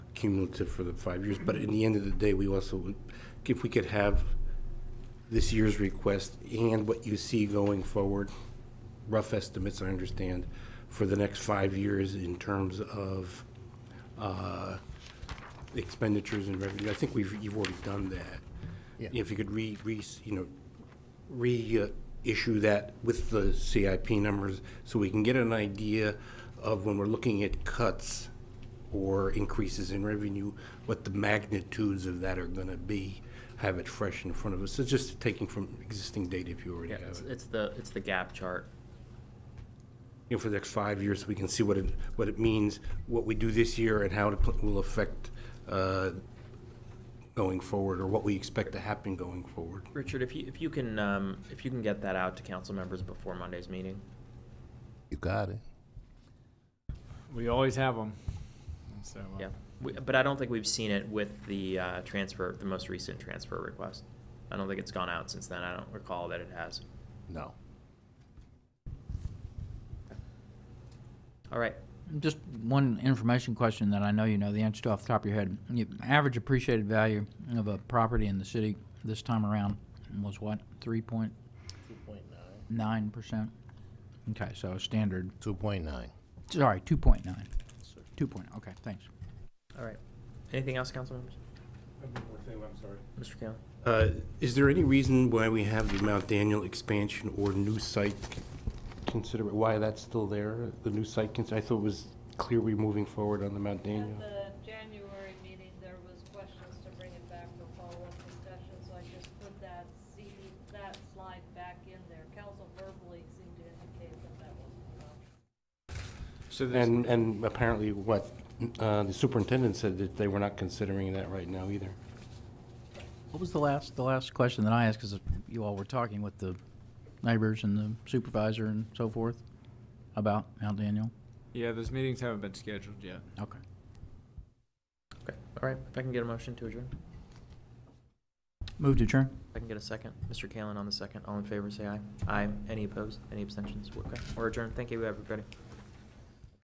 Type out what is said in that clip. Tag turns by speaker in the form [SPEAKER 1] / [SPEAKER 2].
[SPEAKER 1] cumulative for the five years, but in the end of the day, we also, would if we could have this year's request and what you see going forward, rough estimates, I understand, for the next five years in terms of uh, expenditures and revenue, I think we've, you've already done that.
[SPEAKER 2] Yeah.
[SPEAKER 1] If you could re, re, you know, reissue that with the CIP numbers so we can get an idea of when we're looking at cuts or increases in revenue, what the magnitudes of that are going to be, have it fresh in front of us. So just taking from existing data if you already
[SPEAKER 3] Yeah,
[SPEAKER 1] have
[SPEAKER 3] it's,
[SPEAKER 1] it.
[SPEAKER 3] it's the, it's the gap chart.
[SPEAKER 1] You know, for the next five years, we can see what it, what it means, what we do this year and how it pl- will affect uh, going forward or what we expect to happen going forward.
[SPEAKER 3] Richard, if you, if you can, um, if you can get that out to council members before Monday's meeting.
[SPEAKER 4] You got it.
[SPEAKER 2] We always have them. So, uh,
[SPEAKER 3] Yeah, we, but I don't think we've seen it with the, uh, transfer, the most recent transfer request. I don't think it's gone out since then. I don't recall that it has.
[SPEAKER 4] No.
[SPEAKER 3] All right.
[SPEAKER 5] Just one information question that I know you know the answer to off the top of your head. You- Average appreciated value of a property in the city this time around was what, three point nine percent? Okay, so standard,
[SPEAKER 4] 2.9.
[SPEAKER 5] sorry, two point nine. Two point, okay, thanks.
[SPEAKER 3] All right. Anything else, council members?
[SPEAKER 1] I'm sorry.
[SPEAKER 3] Mr. Kayla?
[SPEAKER 1] Uh, Is there any reason why we have the Mount Daniel expansion or new site consider, why that's still there? The new site, cons- I thought it was clear we're moving forward on the Mount Daniel.
[SPEAKER 6] At the January meeting, there was questions to bring it back for follow-up discussion, so I just put that, see, that slide back in there. Council verbally seemed to indicate that that was an option.
[SPEAKER 2] so there's,
[SPEAKER 1] And, and apparently what, uh, the superintendent said that they were not considering that right now either.
[SPEAKER 5] What was the last, the last question that I asked, because you all were talking with the neighbors and the supervisor and so forth about Mount Daniel?
[SPEAKER 2] yeah, those meetings haven't been scheduled yet.
[SPEAKER 5] Okay.
[SPEAKER 3] Okay, all right. If I can get a motion to adjourn,
[SPEAKER 5] Move to adjourn.
[SPEAKER 3] if I can get a second. Mr. Kalen on the second. All in favor, say aye. Aye. Any opposed? Any abstentions? Okay, we're adjourned. Thank you, everybody.